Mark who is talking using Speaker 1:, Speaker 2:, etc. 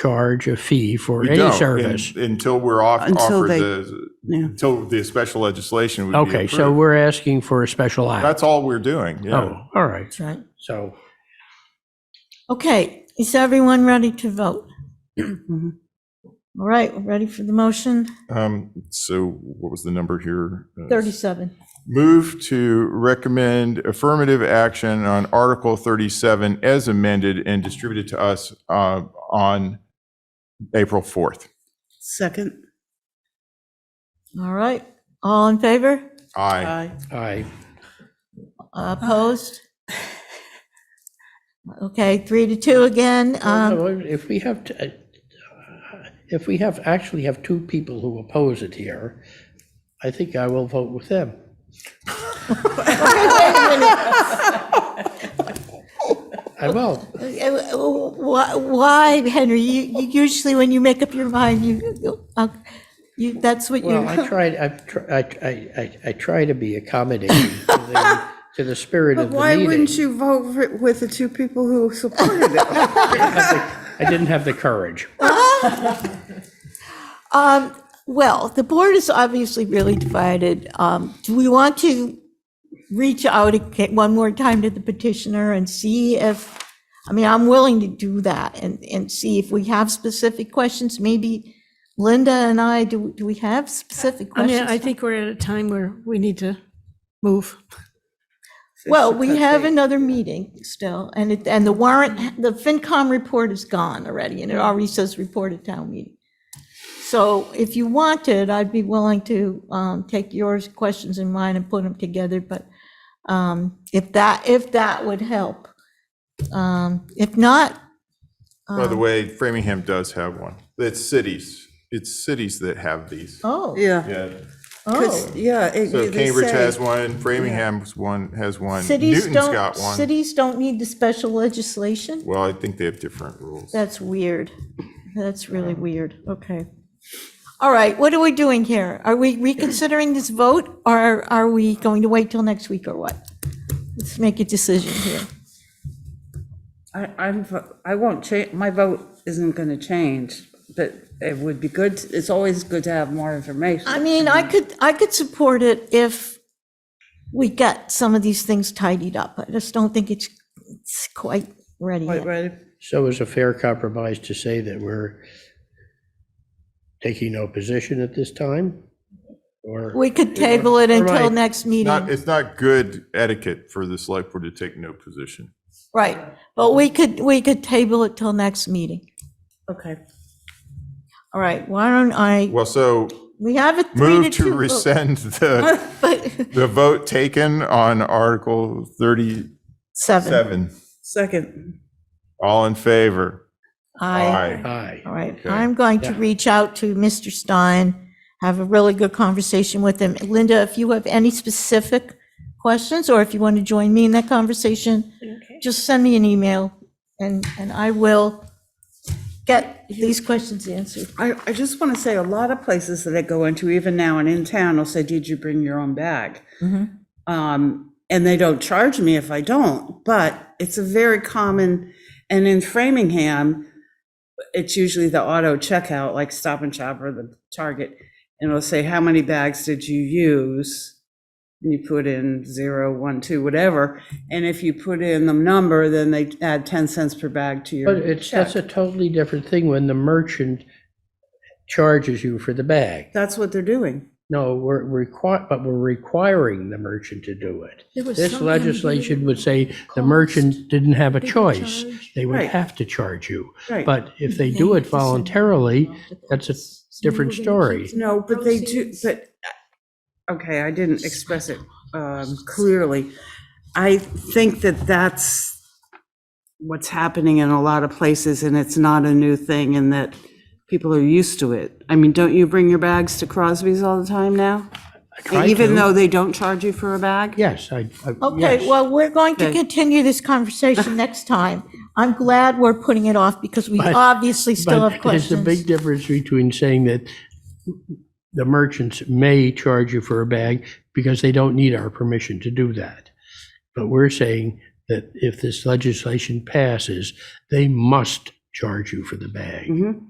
Speaker 1: charge a fee for
Speaker 2: We
Speaker 1: any
Speaker 2: don't,
Speaker 1: service.
Speaker 2: un- Until we're off,
Speaker 3: Until
Speaker 2: offered
Speaker 3: they-
Speaker 2: the,
Speaker 3: Yeah.
Speaker 2: until the special legislation would be
Speaker 1: Okay, so
Speaker 2: approved.
Speaker 1: we're asking for a special act.
Speaker 2: That's all we're doing, yeah.
Speaker 1: Oh, all right.
Speaker 4: That's right.
Speaker 1: So
Speaker 4: Okay, is everyone ready to vote? All right, ready for the motion?
Speaker 1: Oh.
Speaker 2: Um, So what was the number here? Uh,
Speaker 4: 37.
Speaker 2: Move to recommend affirmative action on Article 37 as amended and distributed to us uh, on April 4th.
Speaker 3: Second.
Speaker 4: All right, all in favor?
Speaker 2: Aye.
Speaker 1: I,
Speaker 4: Opposed? Okay, three to two again. Um,
Speaker 1: Oh, if we have, t- uh, if we have, actually have two people who oppose it here, I think I will vote with them. I will.
Speaker 4: eh, Why, why, Henry? You you usually, when you make up your mind, you- you, uh, you, that's what
Speaker 1: Well,
Speaker 4: you,
Speaker 1: I tried, I've tr- I, I, I, I try to be accommodating to the, to the spirit of the
Speaker 3: Why
Speaker 1: meeting.
Speaker 3: wouldn't you vote for it with the two people who supported it?
Speaker 1: I didn't have the courage.
Speaker 4: well, the board is obviously really divided. Um, Do we want to reach out again- one more time to the petitioner and see if, I mean, I'm willing to do that and, and see if we have specific questions. Maybe Linda and I, do, do we have specific
Speaker 5: I mean,
Speaker 4: questions?
Speaker 5: I think we're at a time where we need to move.
Speaker 4: Well, we have another meeting still, and it, and the warrant, the FinCom report is gone already, and it already says report at town meeting. So if you wanted, I'd be willing to um, take yours, questions and mine, and put them together, but um, if that, if that would help. Um, If not,
Speaker 2: By
Speaker 3: Um.
Speaker 2: the way, Framingham does have one. It's cities. It's cities that have these.
Speaker 4: oh,
Speaker 3: Yeah.
Speaker 2: Yeah.
Speaker 3: Oh. 'cause- Yeah. it-
Speaker 2: So
Speaker 3: they
Speaker 2: Cambridge
Speaker 3: say-
Speaker 2: has one, Framingham's one, has one,
Speaker 4: cities
Speaker 2: Newton's
Speaker 4: don't,
Speaker 2: got one.
Speaker 4: cities don't need the special legislation?
Speaker 2: Well, I think they have different rules.
Speaker 4: That's weird. That's really weird. Okay. All right, what are we doing here? Are we reconsidering this vote, or are we going to wait till next week, or what? Let's make a decision here.
Speaker 6: I, I'm, vo- I won't change, my vote isn't gonna change, but it would be good, to- it's always good to have more information.
Speaker 4: I mean, I could, I could support it if we get some of these things tidied up. I just don't think it's, it's quite ready
Speaker 3: Right,
Speaker 4: yet.
Speaker 3: right.
Speaker 1: So is a fair compromise to say that we're taking no position at this time? Or,
Speaker 4: We could table it until
Speaker 1: Right.
Speaker 4: next
Speaker 2: Not,
Speaker 4: meeting.
Speaker 2: it's not good etiquette for the select board to take no position.
Speaker 4: Right, but we could, we could table it till next meeting.
Speaker 3: Okay.
Speaker 4: All right, why don't I,
Speaker 2: Well, so
Speaker 4: we have a three to
Speaker 2: move
Speaker 4: two.
Speaker 2: to
Speaker 4: vote.
Speaker 2: rescind the,
Speaker 4: But,
Speaker 2: the vote taken on Article 37.
Speaker 4: seven.
Speaker 3: Second.
Speaker 2: All in favor?
Speaker 4: I,
Speaker 1: aye.
Speaker 4: all right,
Speaker 2: Okay.
Speaker 4: I'm going to
Speaker 1: Yeah.
Speaker 4: reach out to Mr. Stein, have a really good conversation with him. Linda, if you have any specific questions, or if you want to join me in that conversation, just send me an email, and, and I will get these questions answered.
Speaker 3: I, I just
Speaker 6: want to say a lot of places that I go into, even now and in town, will say, did you bring your own bag? Um, and they don't charge me if I don't, but it's a very common, and in Framingham, it's usually the auto checkout, like Stop and Shop or the Target, and it'll say, how many bags did you use? And you put in zero, one, two, whatever, and if you put in the number, then they add 10 cents per bag to your
Speaker 1: But it's, that's a totally different thing when the merchant charges you for the bag.
Speaker 6: That's what they're doing.
Speaker 1: No, we're required, but we're requiring the merchant to do it. This legislation would say the merchant didn't have a choice. They would
Speaker 6: Right.
Speaker 1: have to charge you.
Speaker 6: Right.
Speaker 1: But if they do it voluntarily, that's a different story.
Speaker 6: No, but they do, but, uh, okay, I didn't express it um, clearly. I think that that's what's happening in a lot of places, and it's not a new thing, and that people are used to it. I mean, don't you bring your bags to Crosby's all the time now?
Speaker 1: try
Speaker 6: Even
Speaker 1: to.
Speaker 6: though they don't charge you for a bag?
Speaker 1: Yes, I, I-
Speaker 4: Okay,
Speaker 1: yes.
Speaker 4: well, we're going to
Speaker 6: Okay.
Speaker 4: continue this conversation next time. I'm glad we're putting it off, because we
Speaker 1: But-
Speaker 4: obviously still have
Speaker 1: But there's a big
Speaker 4: questions.
Speaker 1: difference between saying that the merchants may charge you for a bag because they don't need our permission to do that. But we're saying that if this legislation passes, they must charge you for the bag.
Speaker 6: Mhm.